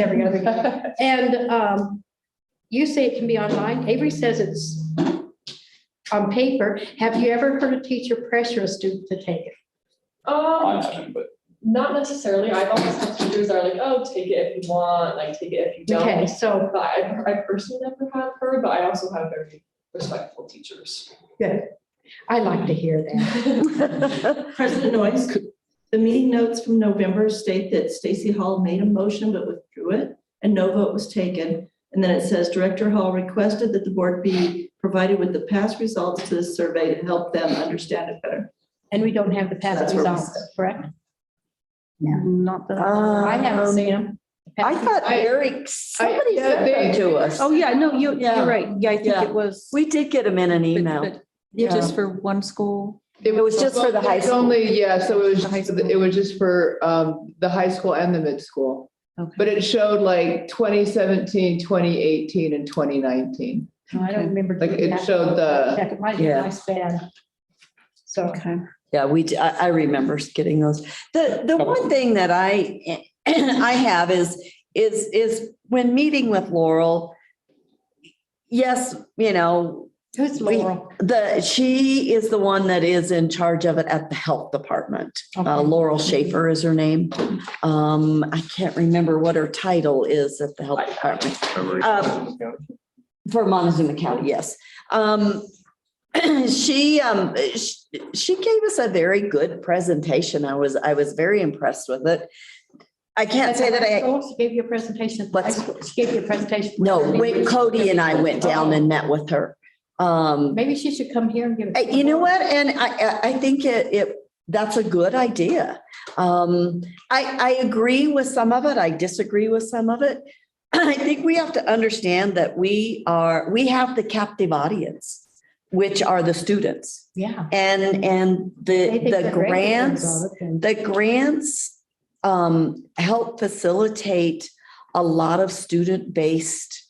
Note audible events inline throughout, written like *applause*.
every *laughs* other week. And um, you say it can be online. Avery says it's on paper. Have you ever heard a teacher pressure a student to take it? Um, I haven't, but not necessarily. I've always had teachers that are like, oh, take it if you want, like, take it if you Okay, don't. so But I, I personally never have heard, but I also have very respectful teachers. I like to hear that. President Noyes, the meeting notes from November state that Stacy Hall made a motion but withdrew it and no vote was taken. And then it says Director Hall requested that the board be provided with the past results to the survey to help them understand it better. And we don't have the past That's where we results, correct? Not I that. haven't seen them. Oh, I thought I- Eric, somebody yeah, sent them they- to us. Oh, yeah, no, you, Yeah. you're right. Yeah, I think Yeah. it was. We did get them in an email. but- Yeah. but Just for one school. It was just for the high It's school. Only, yeah, so it was, The high just for the- school. it was just for um the high school and the mid school. Okay. But it showed like 2017, 2018 and twenty nineteen. No, I don't remember. Like, doing it that. showed the- Check, It might be Yeah. my span. So. Okay. Yeah, we, d- I, I remember getting those. The, the one thing that I, *clears throat* I have is, is, is when meeting with Laurel, yes, you know, Who's We- Laurel? The, she is the one that is in charge of it at the health department. Uh, Okay. Laurel Schaefer is her name. Um, I can't remember what her title is at the health department. Um, For Montezuma County, yes. Um, *clears throat* she, um, sh- she gave us a very good presentation. I was, I was very impressed with it. I can't say that I, She gave you a presentation. at the high What's- school. She gave you a presentation. Oh, no, when Cody and I went down and met with her. Um, Maybe she should come here and give. Uh, it. You know what? And I, I- I think it, it, that's a good idea. Um, I, I agree with some of it. I disagree with some of it. *clears throat* I think we have to understand that we are, we have the captive audience, which are the students. Yeah. And, and the, They think the they're great grants. at it, and The grants um, help facilitate a lot of student-based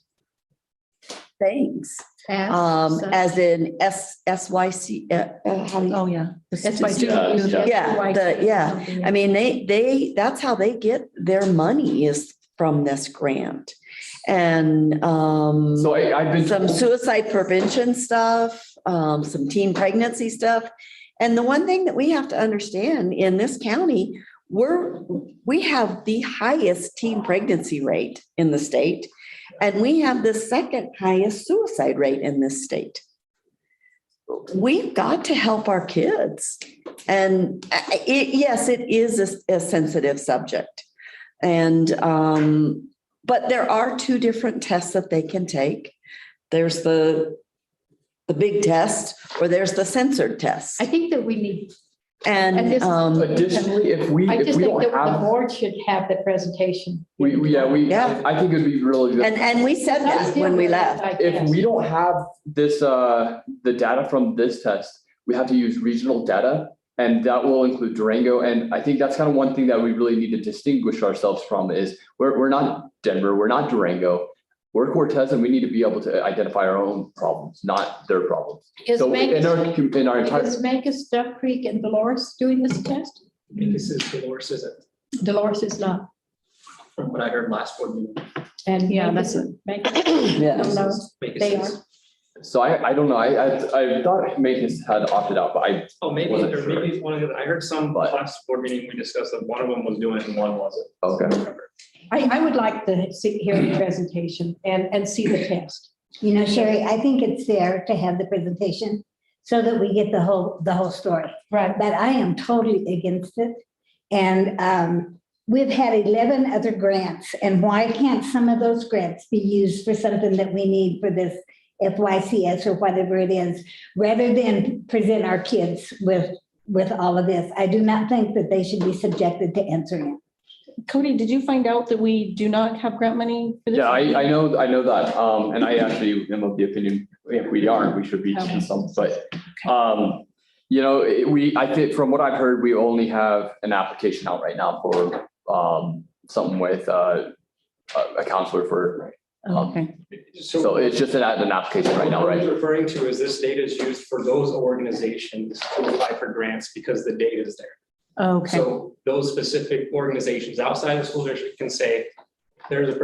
things. fast, Um, so- as in S, SYC, uh, uh, how do you- Oh, yeah. The That's why. student- she- Yeah, yeah. Yeah, the- yeah. Something I mean, they, they, that's how they get their money is from this grant. And, um, So I, I've been. some told- suicide prevention stuff, um, some teen pregnancy stuff. And the one thing that we have to understand in this county, we're, we have the highest teen pregnancy rate in the state. And we have the second highest suicide rate in this state. We've got to help our kids. And uh, it, yes, it is a, a sensitive subject. And, um, but there are two different tests that they can take. There's the, the big test, or there's the censored test. I think that we need, and And, this- um, Additionally, if we, I if just we think don't that the have, board should have the presentation. we, we- yeah, we, Yeah. I think it'd be really good. and, and we said that when we left. I If guess. we don't have this, uh, the data from this test, we have to use regional data. And that will include Durango. And I think that's kind of one thing that we really need to distinguish ourselves from is we're, we're not Denver, we're not Durango. We're Cortez and we need to be able to identify our own problems, not their problems. Is So in Mangus, our, com- in our entire, is Mangus, Duck Creek and Dolores doing this test? This is Dolores, is it, Dolores is not. from what I heard last board meeting? And Yeah, Mangus- Mangus, Yeah. Oh, No, no, Make it they sense. so I, I don't know, I, I, I thought Magnus had opted out, but I, Oh, maybe, Wasn't or sure. maybe it's one of the, I heard some But- last board meeting, we discussed that one of them was doing it and one wasn't. okay. I, I would like to see, hear the presentation and, and see the test. You know, Sherry, I think it's fair to have the presentation so that we get the whole, the whole story. Right. But I am totally against it. And um, we've had 11 other grants, and why can't some of those grants be used for something that we need for this FYCS or whatever it is, rather than present our kids with, with all of this? I do not think that they should be subjected to answering it. Cody, did you find out that we do not have grant money for this? Yeah, I, I know, I know that, um, and I actually am of the opinion, if we aren't, we should be doing some, but, um, you know, it- we, I think, from what I've heard, we only have an application out right now for, um, something with, uh, a- a counselor for, um, Okay. so it's just an, an application right now, What right? he's Referring to is this data is used for those organizations to apply for grants because the data is there. Okay. So those specific organizations outside the school district can say, there's a